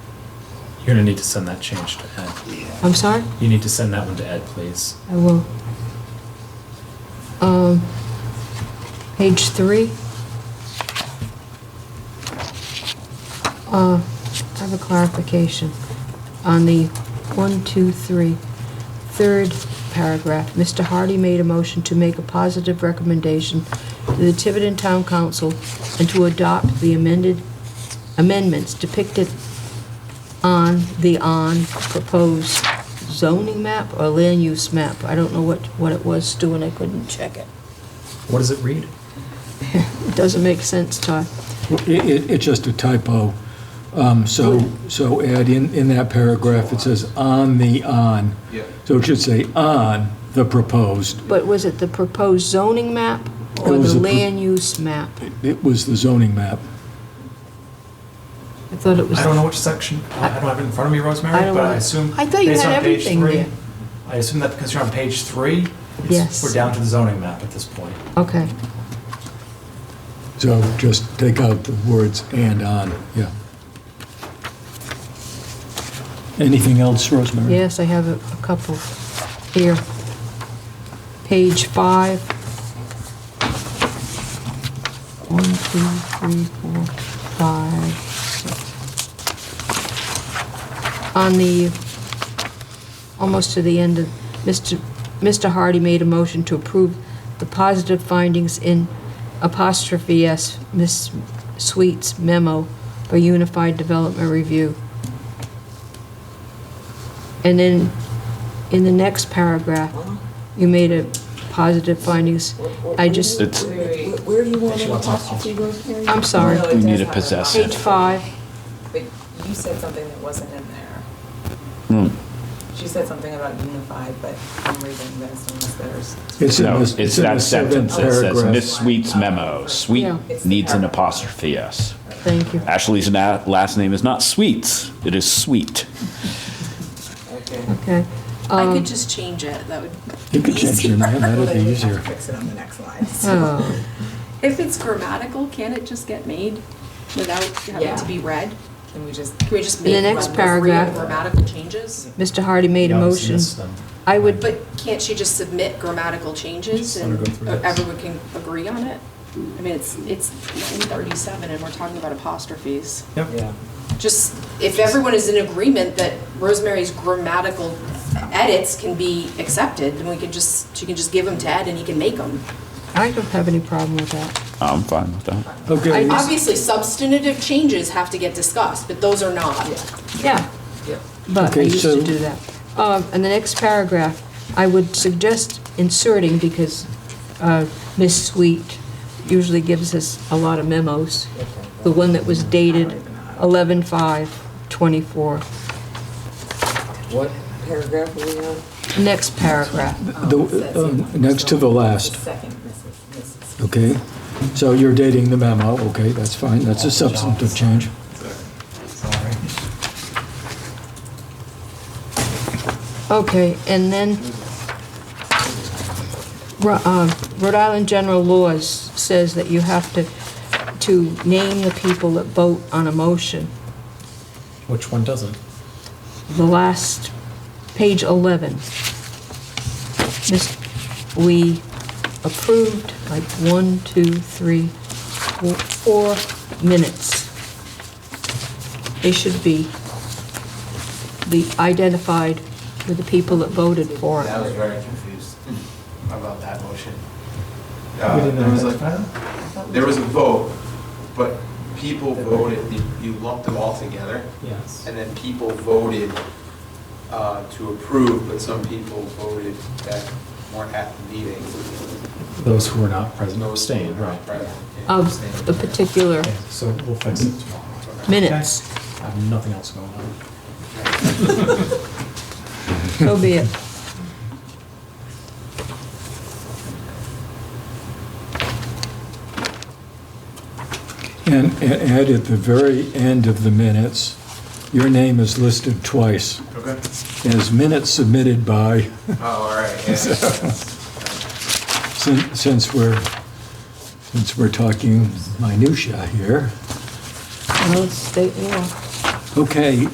You're gonna need to send that change to Ed. I'm sorry? You need to send that one to Ed, please. I will. Um, Page three. Uh, I have a clarification on the one, two, three, third paragraph. Mr. Hardy made a motion to make a positive recommendation to the Tiverton Town Council and to adopt the amended amendments depicted on the on proposed zoning map or land use map. I don't know what, what it was, Stu, and I couldn't check it. What does it read? It doesn't make sense, Todd. Well, It, it, it's just a typo. Um, so, so Ed, in, in that paragraph, it says on the on. Yeah. So it should say on the proposed. But was it the proposed zoning map or It was the a pro- land use map? It was the zoning map. I thought it was, I don't know which section, I don't have it in front of me, I Rosemary, don't but I know. assume. I thought you based had on page everything three- there. I assume that because you're on page three, it's- Yes. we're down to the zoning map at this point. okay, So just take out the words and on, yeah. Anything else, Rosemary? yes, I have a a couple here. Page five. One, two, three, four, five, six. On the almost to the end of, Mr. Mr. Hardy made a motion to approve the positive findings in apostrophe S, Miss Sweet's memo for Unified Development Review. And then, in the next paragraph, you made a positive findings. I just, It's, Wait, Where do you want She an wants an apostrophe, Rosemary? I'm sorry, No, it You does need to have a- possess page five, But you said something that wasn't in there. hmm. She said something about unified, but I'm reading this Oh, unless there's. It's in no, the- it's in the that sentence that says, seventh Miss Sweet's memo, Sweet Yeah. It's the needs an paragraph. apostrophe S. thank you. Ashley's na- last name is not Sweets, it is Sweet. Okay. Okay. I Um, could just change it, that would You could change your name, that'd be easier. Fix it on the next line. Oh, If it's grammatical, can it just get made without having Yeah. to be read? Can we just? Can we just In the make next one paragraph- grammatical changes? Mr. Hardy made a You obviously motion. missed them. I would, But can't she just submit grammatical changes Just let her and uh, go through this. everyone can agree on it? I mean, it's, it's nine thirty-seven and we're talking about apostrophes. Yep, Just, if everyone is in agreement that Rosemary's grammatical edits can be accepted, then we can just, she can just give them to Ed and he can make them. I don't have any problem with that. I'm fine with that. Okay, Obviously, substantive changes have to get discussed, but those are not. Yeah, Yeah. but I Okay, used so- to do that. Um, And the next paragraph, I would suggest inserting, because uh, Ms. Sweet usually gives us a lot of memos, the one that was dated 11/5/24, What paragraph are we on? next paragraph. Oh, the, uh, um, next to the last. Second, Mrs. Mrs. Okay, so you're dating the memo, okay, that's fine, that's a substantive change. sorry. Okay, and then Ro- uh, Rhode Island general laws says that you have to, to name the people that vote on a motion. Which one doesn't? The last, page 11. This- We approved like one, two, three, four, four minutes. They should be the identified with the people that voted for it. I was very confused about that motion. We Uh, didn't There was identify like, them? there was a vote, but people voted, you- you lumped them all together, Yes. and then people voted uh, to approve, but some people voted that weren't at the meeting. Those who were not present or abstained, right. Right. of the particular Okay, so we'll fix it tomorrow. minutes. I have nothing else going on. So be it. And, and add at the very end of the minutes, your name is listed twice Okay. as minutes submitted by, Oh, all right, yeah. sin- since we're, since we're talking minutia here. Well, it's state law. Okay,